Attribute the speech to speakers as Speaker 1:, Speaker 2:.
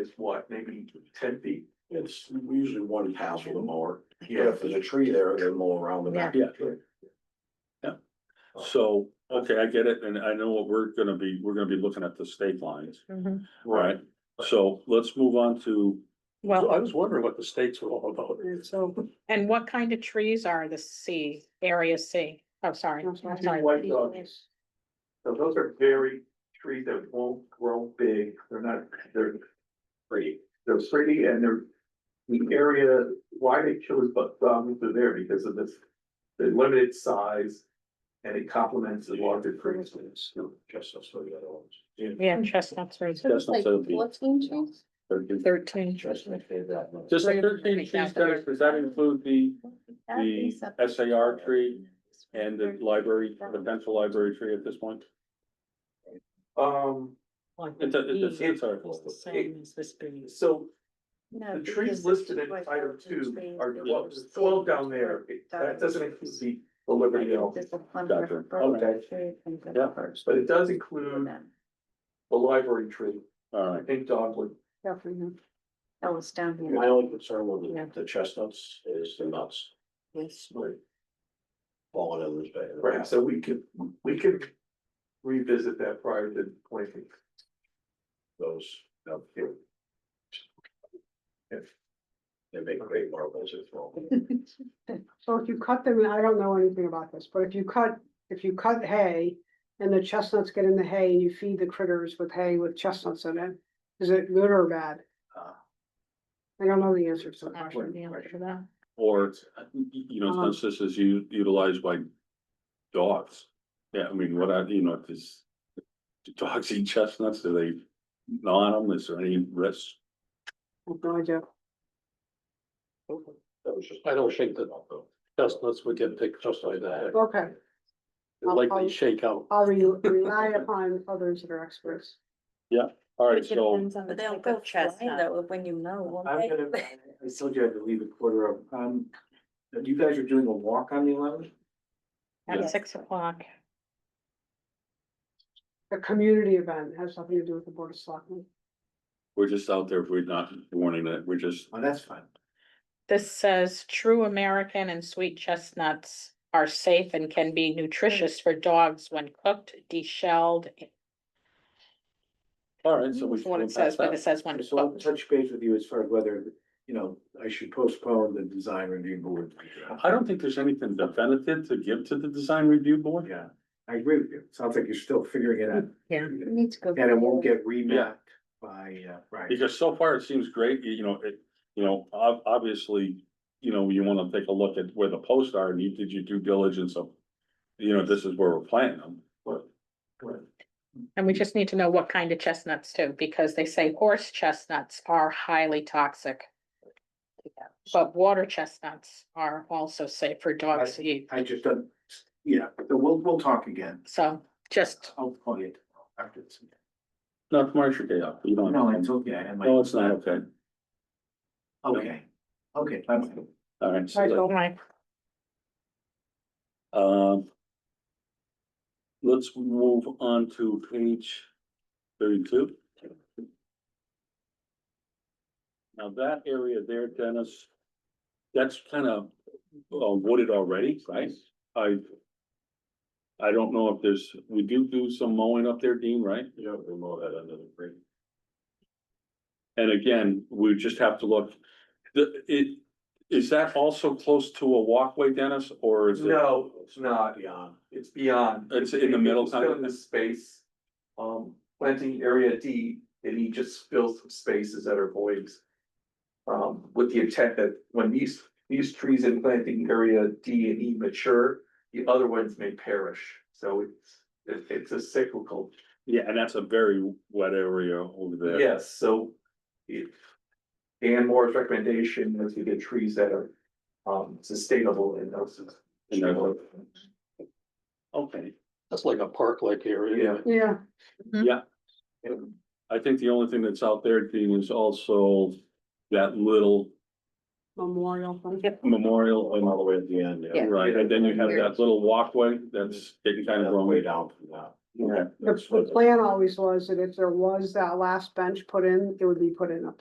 Speaker 1: is what, maybe ten feet?
Speaker 2: It's usually one pass with a mower. But
Speaker 1: Yeah,
Speaker 2: If there's a tree there, they'll mow around the back.
Speaker 3: Yeah.
Speaker 4: So, okay, I get it, and I know what we're gonna be, we're gonna be looking at the state lines,
Speaker 3: Mhm.
Speaker 4: right? So let's move on to,
Speaker 3: Well,
Speaker 1: was wondering what the states were all about.
Speaker 5: So,
Speaker 3: and what kind of trees are the C, area C? Oh, sorry,
Speaker 5: I'm sorry.
Speaker 3: sorry.
Speaker 1: White doggies. So those are very trees that won't grow big, they're not, they're
Speaker 2: Pretty.
Speaker 1: they're pretty and they're. The area, why they chose but dominant are there because of this, the limited size. And it complements the larger trees.
Speaker 2: Just those three other ones.
Speaker 3: Yeah, chestnuts are
Speaker 4: that's not so big.
Speaker 5: trees?
Speaker 3: thirteen.
Speaker 2: Just my favorite. one.
Speaker 4: Just the thirteen trees, Dennis, does that include the, The SAR tree and the library, the potential library tree at this point?
Speaker 1: Um,
Speaker 4: It's, a- it's, a- it's, our-
Speaker 3: It's the same as this being.
Speaker 1: so
Speaker 5: No,
Speaker 1: the trees
Speaker 5: Uh, because
Speaker 1: listed in
Speaker 5: it's
Speaker 1: item
Speaker 5: like
Speaker 1: two
Speaker 5: trees
Speaker 1: are
Speaker 5: that
Speaker 1: twelve,
Speaker 5: were
Speaker 1: there's twelve down there, that doesn't include the the Liberty Elm.
Speaker 5: There's a clump
Speaker 4: Gotcha.
Speaker 5: of birch
Speaker 1: Okay.
Speaker 5: tree and the
Speaker 4: Yeah.
Speaker 5: birch
Speaker 1: But it does
Speaker 5: tree
Speaker 1: include
Speaker 5: then.
Speaker 1: the library tree,
Speaker 4: all
Speaker 1: I
Speaker 4: right,
Speaker 1: think dogwood.
Speaker 5: Yeah, mhm. That was down
Speaker 2: My
Speaker 5: here.
Speaker 2: only concern
Speaker 3: Yeah.
Speaker 2: with the chestnuts is the nuts
Speaker 1: Right.
Speaker 2: falling in this bed.
Speaker 1: Right, so we could, we could revisit that prior to planting.
Speaker 2: Those, no,
Speaker 1: If
Speaker 2: they make great marbles as well.
Speaker 6: So if you cut them, and I don't know anything about this, but if you cut, if you cut hay and the chestnuts get in the hay and you feed the critters with hay with chestnuts in it, is it good or bad?
Speaker 2: Ah.
Speaker 6: I don't know the answer to that
Speaker 3: Not
Speaker 6: question.
Speaker 3: sure the answer to that.
Speaker 4: or, uh, you
Speaker 3: Um.
Speaker 4: know, since this is u- utilized by dogs. Yeah, I mean, what I, you know, does, do dogs eat chestnuts, do they gnaw on them, is there any risk?
Speaker 6: I have No idea.
Speaker 2: That was just, I don't shake that up though. Chestnuts would get picked just like that.
Speaker 6: Okay, I'll- I'll-
Speaker 2: shake out.
Speaker 6: I'll re- rely upon others that are experts.
Speaker 4: All right, so,
Speaker 5: But they'll go flying though, when you know. won't
Speaker 7: I'm
Speaker 5: they?
Speaker 7: gonna, I told you I had to leave a quarter of, um, you guys are doing a walk on the eleventh?
Speaker 4: Yeah.
Speaker 3: At six o'clock,
Speaker 6: A community event has something to do with the board of selectmen.
Speaker 4: we're just out there, we're not warning it, we're just
Speaker 7: Oh, that's fine.
Speaker 3: this says true American and sweet chestnuts are safe and can be nutritious for dogs when cooked, deshelled.
Speaker 4: All right, so we.
Speaker 3: Mm, That's what it says, but it says when
Speaker 7: So I'll
Speaker 3: cooked.
Speaker 7: touch base with you as far as whether, you know, I should postpone the design review board.
Speaker 4: I don't think there's anything definitive to give to the design review board.
Speaker 7: Yeah, I agree with you. Sounds like you're still figuring it out.
Speaker 3: Yeah.
Speaker 5: We Need to go.
Speaker 7: And it won't get
Speaker 4: Yeah.
Speaker 7: remapped by, uh, right.
Speaker 4: Because so far it seems great, you you know, it, you know, ob- obviously, you know, you wanna take a look at where the posts are and you did your due diligence of. You know, this is where we're planting them, but
Speaker 3: And we just need to know what kind of chestnuts too, because they say horse chestnuts are highly toxic. But water chestnuts are also safe for dogs to eat,
Speaker 7: I just don't, yeah, but we'll, we'll talk again.
Speaker 3: so just,
Speaker 7: I'll call you tomorrow after this.
Speaker 4: not tomorrow, your day off, you don't.
Speaker 7: No, it's okay. I had my-
Speaker 4: No, it's not, okay,
Speaker 7: Okay, okay, bye-bye.
Speaker 4: all right. so
Speaker 3: I
Speaker 4: that-
Speaker 3: don't mind.
Speaker 4: Um. Let's move on to page thirty-two. Now that area there, Dennis, that's kind of wooded already, right? I. I don't know if there's, we do do some mowing up there, Dean, right?
Speaker 2: Yeah, we mow that under the tree.
Speaker 4: And again, we just have to look, the, it, is that also close to a walkway, Dennis, or is it?
Speaker 1: No, it's not,
Speaker 7: uh,
Speaker 2: Beyond.
Speaker 1: it's beyond.
Speaker 4: It's in the middle
Speaker 1: It's Still in
Speaker 4: kind
Speaker 1: the
Speaker 4: of-
Speaker 1: space, um, planting area D, and he just fills some spaces that are voids. Um, with the intent that when these, these trees in planting area D and E mature, the other ones may perish, so it's. It, it's a cyclical
Speaker 4: Yeah, and that's a very wet area over there.
Speaker 1: Yes, so if Dan Moore's recommendation was to get trees that are um sustainable and those.
Speaker 4: And they're- Okay,
Speaker 2: That's like a park-like area.
Speaker 1: Yeah.
Speaker 6: Yeah,
Speaker 4: I think the only thing that's out there, Dean, is also that little
Speaker 6: memorial thing.
Speaker 4: memorial,
Speaker 2: Oh, All the way at the end.
Speaker 5: Yeah.
Speaker 7: uh,
Speaker 4: and- right, and then you have that little walkway that's getting kind of
Speaker 2: Way
Speaker 4: wrong.
Speaker 2: down from that.
Speaker 4: Yeah.
Speaker 6: The, the plan always was that if there was that last bench put in, it would be put in up